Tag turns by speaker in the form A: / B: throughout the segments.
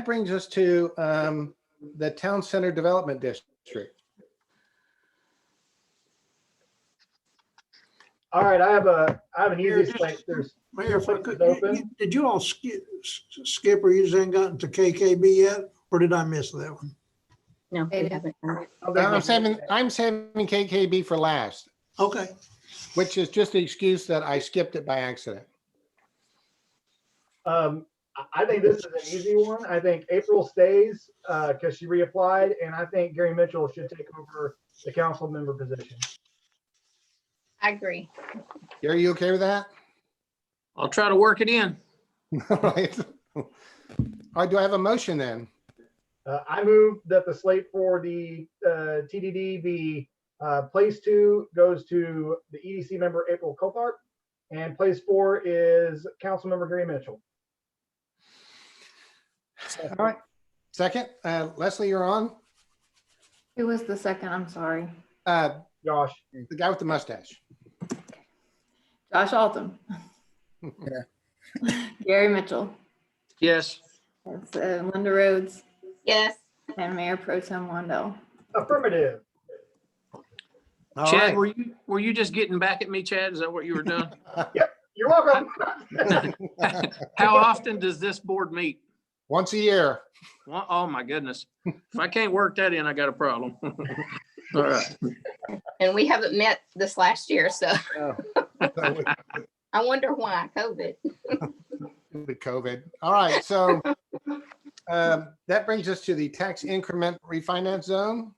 A: That brings us to um, the Town Center Development District.
B: All right, I have a, I have an
C: Mayor,
B: easy
C: just-
B: place. There's,
C: Mayor, if I could,
B: Is it open?
C: you- did you all skip, skip or you just ain't gotten to KKB yet? Or did I miss that one?
D: No, we
E: Data.
D: haven't. no.
B: oh, there's
A: I'm
B: one.
A: saving, I'm saving KKB for last,
C: Okay,
A: which is just the excuse that I skipped it by accident.
B: Um, I- I think this is an easy one. I think April stays, uh, cause she reapplied and I think Gary Mitchell should take over the council member position.
E: I agree.
A: Are you okay with that?
F: I'll try to work it in.
A: All right. All right, do I have a motion then?
B: Uh, I move that the slate for the, uh, TDD be, uh, place two goes to the EDC member April Copart. And place four is council member Gary Mitchell.
A: All right. Second, uh, Leslie, you're on.
E: Who was the second? I'm sorry.
A: Uh,
B: Josh,
A: The guy with the mustache.
E: Josh Altum. Gary Mitchell.
F: Yes,
E: That's, uh, Linda Rhodes
D: Yes,
E: and Mayor Pro Tem Wendell.
B: affirmative.
C: all
F: Chad,
C: right.
F: were you, were you just getting back at me, Chad? Is that what you were doing?
B: You're welcome.
F: How often does this board meet?
A: Once a year.
F: Wha- Oh, my goodness. If I can't work that in, I got a problem. All right.
D: and we haven't met this last year, so
A: With
D: I wonder why COVID.
A: COVID. All right, so um, that brings us to the tax increment refinance zone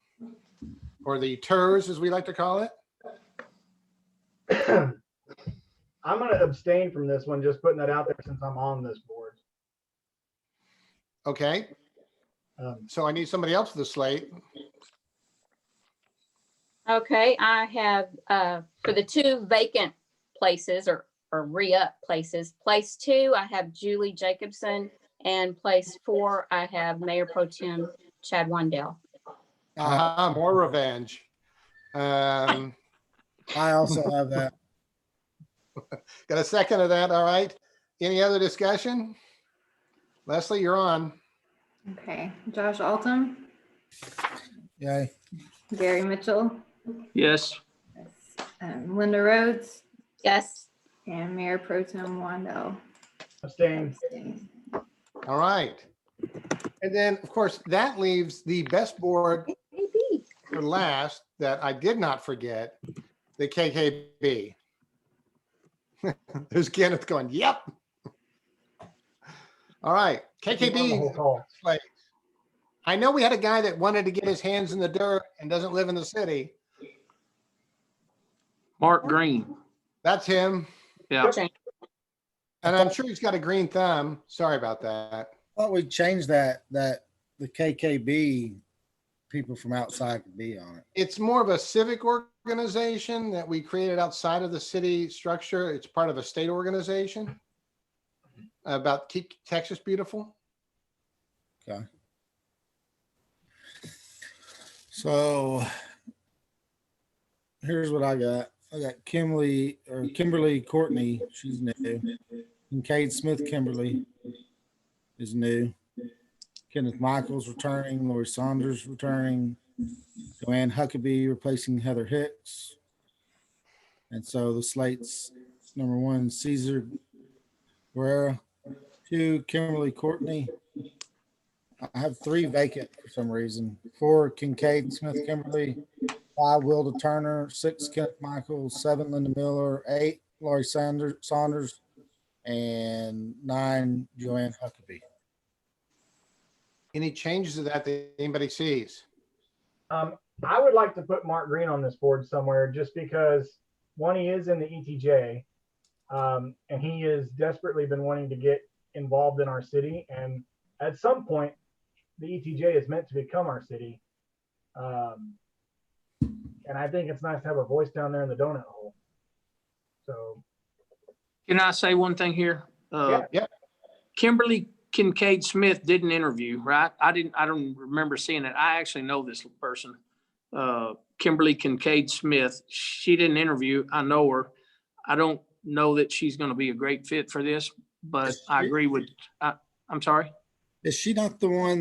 A: or the TERS, as we like to call it.
B: I'm gonna abstain from this one, just putting that out there since I'm on this board.
A: Okay,
B: Um,
A: so I need somebody else for the slate.
D: Okay, I have, uh, for the two vacant places or, or re-up places, place two, I have Julie Jacobson. And place four, I have Mayor Pro Tem Chad Wendell.
G: Uh-huh.
A: Uh, more revenge. Um,
G: I also have that.
A: Got a second of that, all right? Any other discussion? Leslie, you're on.
E: Okay, Josh Altum,
G: Yay.
E: Gary Mitchell,
F: Yes,
E: um, Linda Rhodes
D: Yes,
E: and Mayor Pro Tem Wendell.
B: Abstain.
A: All right. And then, of course, that leaves the best board
D: maybe.
A: for last that I did not forget, the KKB. There's Kenneth going, yep. All right,
B: You're on the whole
A: KKB,
B: call.
A: I know we had a guy that wanted to get his hands in the dirt and doesn't live in the city.
F: Mark Green.
A: That's him.
F: Yeah.
A: And I'm sure he's got a green thumb. Sorry about that.
G: Thought we changed that, that the KKB people from outside could be on it.
A: It's more of a civic organization that we created outside of the city structure. It's part of a state organization about Keep Texas Beautiful.
G: So here's what I got. I got Kimberly or Kimberly Courtney. She's new. Kincaid Smith Kimberly is new. Kenneth Michaels returning. Lori Saunders returning. Joanne Huckabee replacing Heather Hicks. And so the slates number one, Caesar Guerra. Two, Kimberly Courtney. I have three vacant for some reason. Four Kincaid Smith Kimberly, five Wilda Turner, six Kenneth Michaels, seven Linda Miller, eight Laurie Sanders Saunders, and nine Joanne Huckabee.
A: Any changes to that that anybody sees?
B: Um, I would like to put Mark Green on this board somewhere just because one, he is in the ETJ. Um, and he has desperately been wanting to get involved in our city. And at some point, the ETJ is meant to become our city. Um, and I think it's nice to have a voice down there in the donut hole. So,
F: Can I say one thing here? Uh,
A: Yeah.
F: Kimberly Kincaid Smith did an interview, right? I didn't, I don't remember seeing it. I actually know this person. Uh, Kimberly Kincaid Smith, she did an interview. I know her. I don't know that she's going to be a great fit for this, but I agree with, I, I'm sorry.
G: Is she not the one